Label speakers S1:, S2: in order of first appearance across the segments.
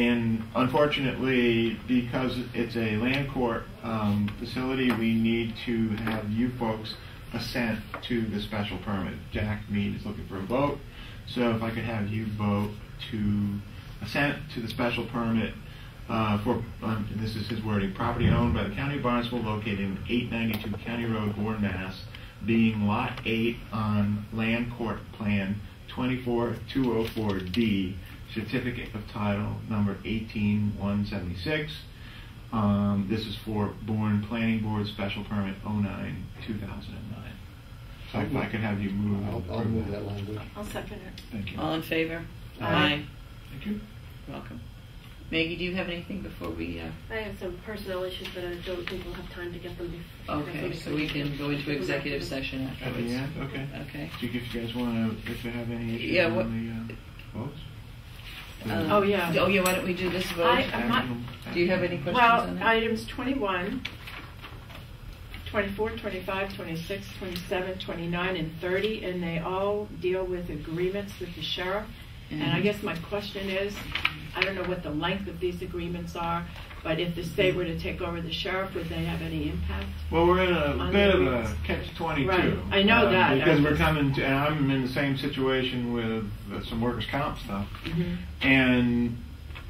S1: And unfortunately, because it's a land court um, facility, we need to have you folks assent to the special permit. Jack Mead is looking for a vote, so if I could have you vote to assent to the special permit uh, for, um, and this is his wording, property owned by the county of Barnstable located in 892 County Road, Warren, Mass., being Lot 8 on Land Court Plan 24204D, Certificate of Title Number 18176. Um, This is for Bourne Planning Board Special Permit 09-2009. So if I could have you move.
S2: I'll, I'll move that language.
S3: I'll second it.
S1: Thank you.
S4: All in favor?
S3: Aye.
S1: Thank you.
S4: You're Welcome. Maggie, do you have anything before we, uh,
S3: I have some personnel issues, but I don't think we'll have time to get them before.
S4: okay, so we can go into executive session
S1: At the
S4: afterwards?
S1: end, okay.
S4: Okay.
S1: Do you, if you guys want to, if you have any
S4: Yeah,
S1: issues
S4: what-
S1: on the uh, votes? Mm-hmm.
S4: Um,
S3: Oh, yeah.
S4: Oh, yeah, why don't we do this vote?
S3: I- I'm not-
S4: Do you have any questions on
S5: Well,
S4: that?
S5: items 21, 24, 25, 26, 27, 29, and 30, and they all deal with agreements with the sheriff. And I
S4: Mhm.
S5: guess my question is, I don't know what the length of these agreements are, but if the state were to take over the sheriff, would they have any impact?
S1: Well, we're in a
S5: On
S1: bit of
S5: the-
S1: a catch twenty-two.
S5: Right, I know
S1: uh,
S5: that.
S1: Because we're coming to, and I'm in the same situation with uh, some workers' comp stuff. And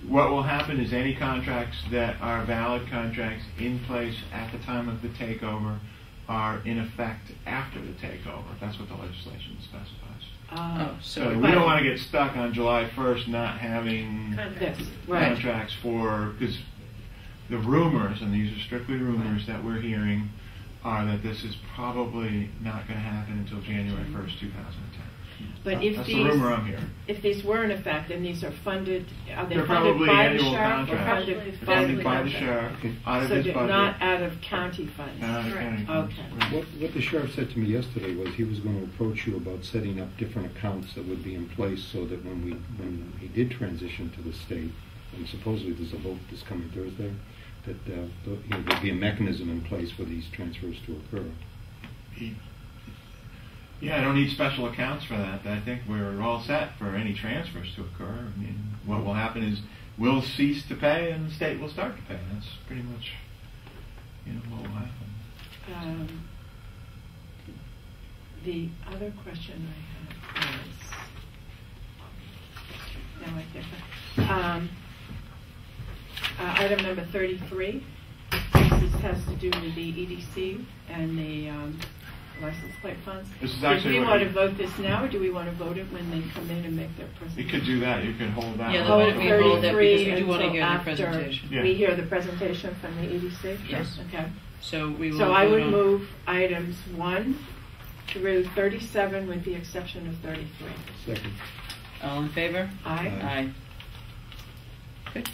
S1: what will happen is any contracts that are valid contracts in place at the time of the takeover are in effect after the takeover. That's what the legislation specifies.
S5: Uh,
S4: Oh,
S1: So
S4: so,
S1: we don't want to get stuck on July first not having
S5: This,
S3: Contracts.
S5: right.
S1: contracts for, because the rumors, and these are strictly rumors that we're hearing, are that this is probably not going to happen until January 1st, 2010.
S5: Mm-hmm. But if
S1: That's the
S5: these,
S1: rumor I'm hearing.
S5: if these were in effect, and these are funded, are they
S1: They're
S5: funded
S1: probably
S5: by the
S1: annual
S5: sheriff? or
S1: contracts.
S5: funded
S3: They're
S5: by the
S1: Funded by the
S5: contract?
S1: sheriff, out of
S5: So
S1: his
S5: did-
S1: budget. Uh,
S5: not out of county funds?
S1: Not out of county
S3: Correct.
S1: funds.
S5: Okay.
S1: Right.
S2: What, what the sheriff said to me yesterday was he was going to approach you about setting up different accounts that would be in place so that when we, when he did transition to the state, and supposedly there's a vote this coming Thursday, that uh, th- you know, there'd be a mechanism in place for these transfers to occur.
S1: He- Yeah, I don't need special accounts for that. I think we're all set for any transfers to occur. I mean, what will happen is we'll cease to pay and the state will start to pay. That's pretty much, you know, what will happen.
S5: Um, The other question I had was, now I think, um, uh, item number 33, this has to do with the EDC and the um, license plate funds.
S1: This is actually
S5: Do we
S1: what-
S5: want to vote this now, or do we want to vote it when they come in and make their presentation?
S1: You could do that. You could hold that.
S4: yeah,
S5: Oh,
S4: let me hold that because we
S5: 33
S4: do want to hear
S5: until
S4: the
S5: after.
S4: presentation.
S1: Yeah.
S5: We hear the presentation from the EDC?
S4: Yes.
S5: Okay.
S4: So we will.
S5: So I
S4: vote
S5: would
S4: on-
S5: move items one through 37 with the exception of 33.
S2: Second.
S4: All in favor?
S5: Aye?
S4: Aye. Good.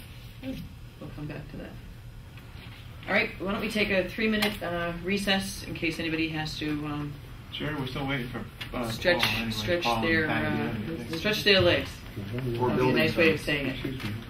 S4: We'll come back to that. All right, why don't we take a three-minute uh, recess in case anybody has to um,
S1: Sure, we're still waiting for uh,
S4: stretch,
S1: Paul, anyway.
S4: stretch
S1: Paul and
S4: their,
S1: Patty,
S4: uh,
S1: anything.
S4: stretch their legs. That's a nice way of saying it.
S2: Excuse me.